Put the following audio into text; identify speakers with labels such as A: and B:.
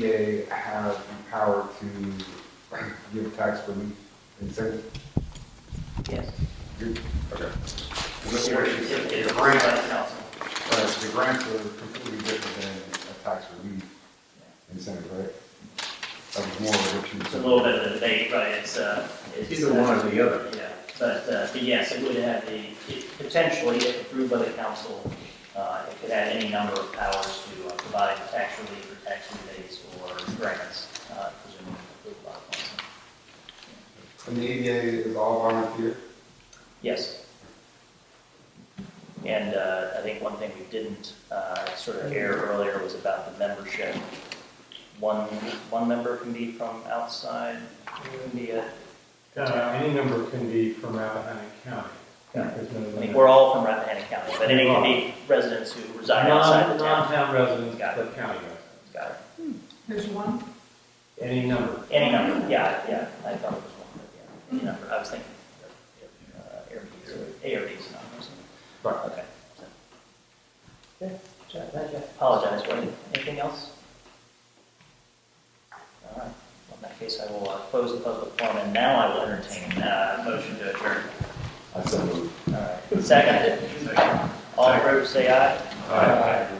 A: EPA have the power to give tax relief incentive?
B: Yes.
A: You- Okay.
B: It's it's a grant by the council.
A: Right, so the grants are completely different than a tax relief incentive, right? That was more of what you
B: It's a
A: said.
B: little bit of a debate, but it's, uh, it's.
C: Either one or the other.
B: Yeah, but, uh, but yes, it would have the, it- potentially, if approved by the council, uh, it could add any number of powers to uh, provide tax relief or tax rebates or grants, uh, presumably approved by the council.
A: And the EPA is all volunteer?
B: Yes. And uh, I think one thing we didn't uh, sort of air earlier was about the membership. One, one member can be from outside, can be a,
D: Uh, Any number can be from Rappahannock County.
B: Yeah.
D: There's no
B: I mean,
D: limit.
B: we're all from Rappahannock County, but any can be residents who reside outside
D: Non-
B: the town.
D: Non-town residents,
B: Got
D: but county residents.
B: Got
E: There's one.
D: Any number.
B: it. Any number, yeah, yeah, I thought it was one, but yeah, any number, I was thinking. uh, ARBs, or ARBs, not resident.
A: Right.
B: Okay. Apologize, Wayne. Anything else? All right. Well, In that case, I will uh, close the public forum, and now I will entertain uh, a motion to adjourn.
A: I said.
B: All right. Second? All in favor, say aye. Aye.